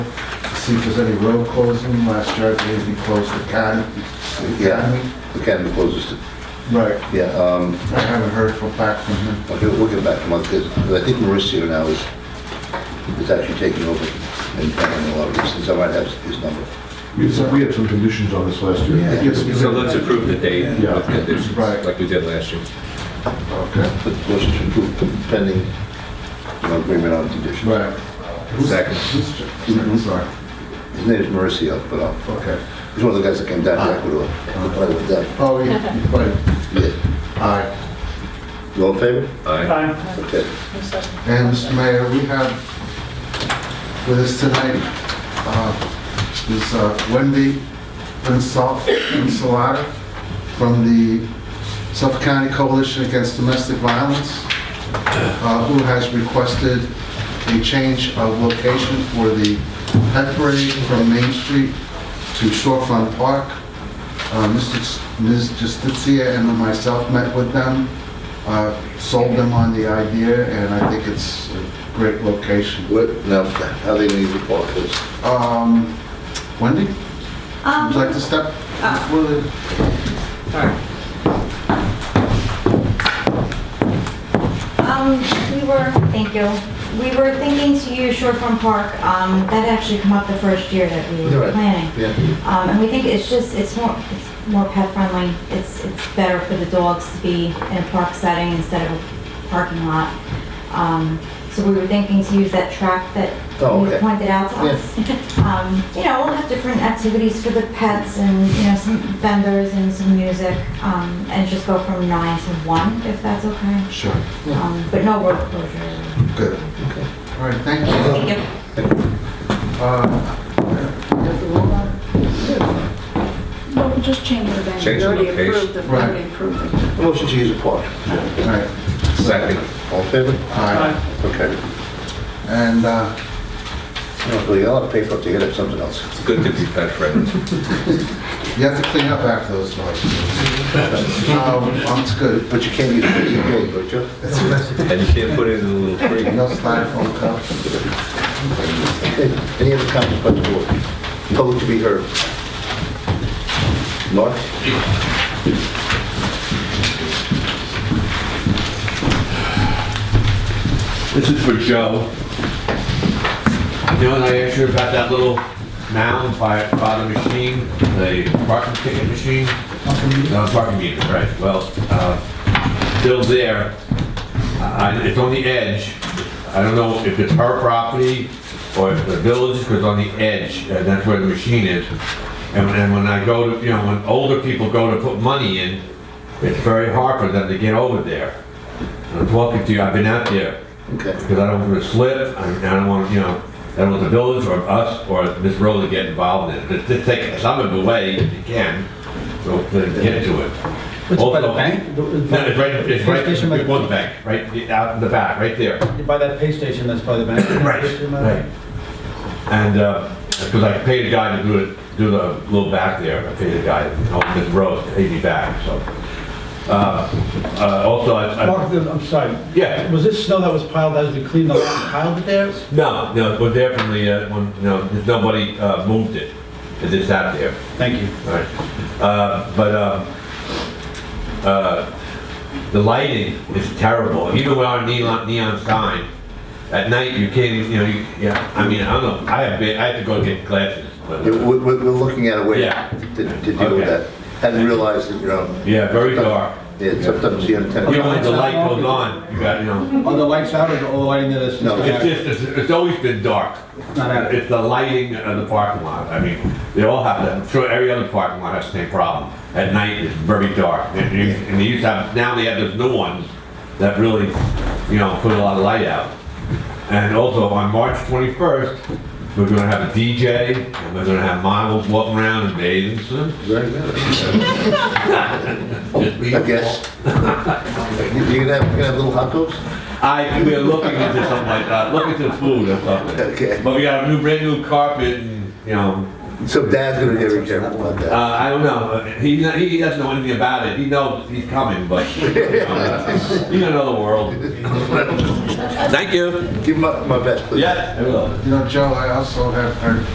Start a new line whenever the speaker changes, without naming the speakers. see if there's any road closing. Last year, I believe we closed the county.
Yeah, the academy closes,
Right.
yeah, um,
I haven't heard from back from him.
okay, we'll get back to Mark, because I think Mauricio now is, is actually taking over and handling a lot of these things, I might have his number.
We had- we had some conditions on this last year.
Yeah.
Yes, we
So
did.
let's approve the date
Yeah.
with conditions,
Right.
like we did last year.
Okay.
But the motion to approve pending you know, agreement on condition.
Right. Who's-
Second.
who's-
Mm-hmm.
second, Sorry.
His name is Mauricio, but uh,
Okay.
he's one of the guys that came down to Ecuador to play with them.
Oh, yeah, you played.
Yeah.
Aye.
You all in favor?
Aye.
Okay.
And Mr. Mayor, we have with us tonight uh, is uh, Wendy Insal- Insalata from the Suffolk County Coalition Against Domestic Violence, uh, who has requested a change of location for the pet parade from Main Street to Shorefront Park. Uh, Mr. Ch- Ms. Justicia and myself met with them uh, sold them on the idea, and I think it's a great location.
What, now, how they need to park this?
Um, Wendy, would you like
Um,
to step before the...
um, we were, thank you, we were thinking to use Short Form Park, um, that actually come up the first year that we were
Right.
planning.
Yeah.
Um, and we think it's just, it's more, it's more pet friendly, it's, it's better for the dogs to be in a park setting instead of a parking lot. Um, so we were thinking to use that track that
Oh,
you
okay.
pointed out to
Yeah.
us. Um, you know, we'll have different activities for the pets and, you know, some vendors and some music, um, and just go from nine to one, if that's okay.
Sure.
Um, but no road closure.
Good. All right, thank you.
Thank you.
Uh,
Well, we'll just change it again.
Change the
We already approved it, we
Right.
already approved it.
Motion to use a park.
All right,
Second.
All in favor?
all right.
Okay.
And uh,
Well, you all have paper to get up something else.
It's good to be pet friendly.
you have to clean up after those dogs. Um, That's good.
But you can't use it, you can't, but you?
And you can't put it in a little creek.
No styrofoam cups.
Okay. Any other comments by the board? Public to be heard? Mark?
This is for Joe. You know, and I asked you about that little mound by, by the machine, the parking ticket machine? No, parking meter, right, well, uh, still there. I- I- It's on the edge. I don't know if it's her property or if the village, because on the edge, uh, that's where the machine is. And when- and when I go to, you know, when older people go to put money in, it's very hard for them to get over there. I'm talking to you, I've been out there
Okay.
because I don't want to slip, I I don't want, you know, I don't want the village or us or Miss Rose to get involved in it. Just- Just take some of the way if you can, so to get to it.
It's by the
Also-
bank?
No, it's right, it's
Police
right
station by the-
before the bank, right out in the back, right there.
By that pay station, that's by the bank?
Right. And, uh, because I paid a guy to do it, do the little back there, I paid a guy, on Miss Rose, to pay me back, so. Uh, uh, Also, I, I-
Mark, I'm sorry.
Yeah.
Was this snow that was piled as we cleaned up, piled it there?
No, no, but definitely, uh, when, no, there's nobody, uh, moved it. It's just out there,
Thank you.
all right? Uh, but, um, uh, the lighting is terrible, even with our neon, neon sign. At night, you can't, even, you know, you, yeah, I mean, I don't know, I have been, I had to go get glasses, but, uh,
Yeah, we- We're, we're looking at a way
Yeah.
to to deal with
Okay.
that. Hadn't realized that, you know,
yeah, very dark.
yeah, sometimes you have
You know,
ten.
when the light goes on, you got, you know,
Are the lights out or all the lighting that is
No.
it's just, it's, it's always been dark.
Not out.
It's the lighting of the parking lot. I mean, they all have that. I'm sure every other parking lot has the same problem. At night, it's very dark. And you- and they used to have, now they have those new ones that really, you know, put a lot of light out. And also, on March 21st, we're gonna have a DJ, and we're gonna have models walking around in bathing suits.
Very good. I guess. You're gonna have, you're gonna have little hot dogs?
I, we're looking into something like that, looking into food or
Okay.
something. But we got a new, brand new carpet and, you know,
So Dad's gonna be very careful about
Uh,
that.
I don't know. He, he doesn't know anything about it. He knows he's coming, but you don't know the world. Thank you.
Give him my, my best, please.
Yeah, I will.
You know, Joe, I also have heard